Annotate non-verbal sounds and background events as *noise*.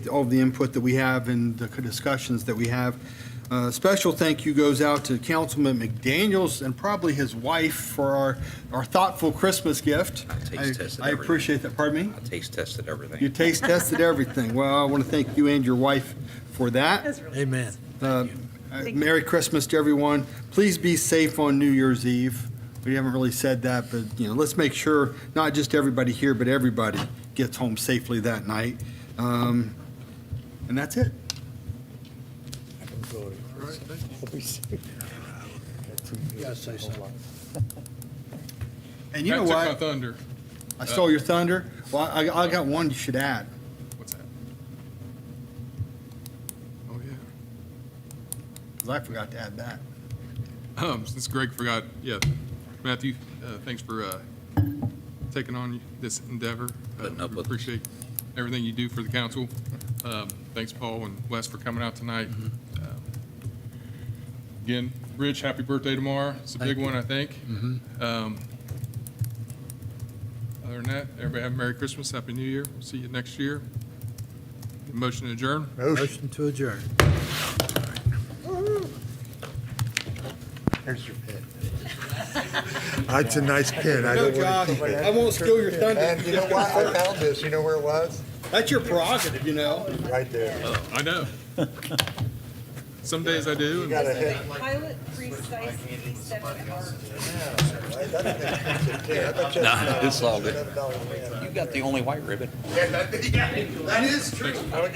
all the input that we have and the discussions that we have. Uh, Special thank you goes out to Councilman McDaniels and probably his wife for our, our thoughtful Christmas gift. I taste tested I everything. appreciate that. Pardon me? I taste tested *laughs* You everything. taste tested everything. Well, I want to thank you and your wife for that. That's really Amen. Uh, Merry Christmas to everyone. Please be safe on New Year's Eve. We haven't really said that, but, you know, let's make sure not just everybody here, but everybody gets home safely that night. Um, And that's it. And you know That took my what? thunder. I stole your thunder. Well, I, I got one you should add. What's that? Oh, yeah. 'cause I forgot to add that. Um, since Greg forgot, yeah, Matthew, uh, thanks for, uh, taking on this endeavor. Uh, Putting up we with us. Appreciate everything you do for the council. Um, thanks, Paul and Wes, for coming out tonight. Mm-hmm. Um, Again, Rich, happy birthday tomorrow. It's a big one, I think. Mm-hmm. Um, Other than that, everybody have a Merry Christmas, Happy New Year. We'll See you next year. Motion to adjourn. Motion to adjourn. Here's your pin. That's a nice pin. I No, don't Josh, want I won't steal your And you know thunder. what? I found this. You know where it was? That's your prerogative, you know? Right there. I know. Some days I do. You and- got a hit. Pilot precisely seven hours. I thought it was a pin. I bet you Nah, that's it's all good. $7 man. You got the only white ribbon. Thanks.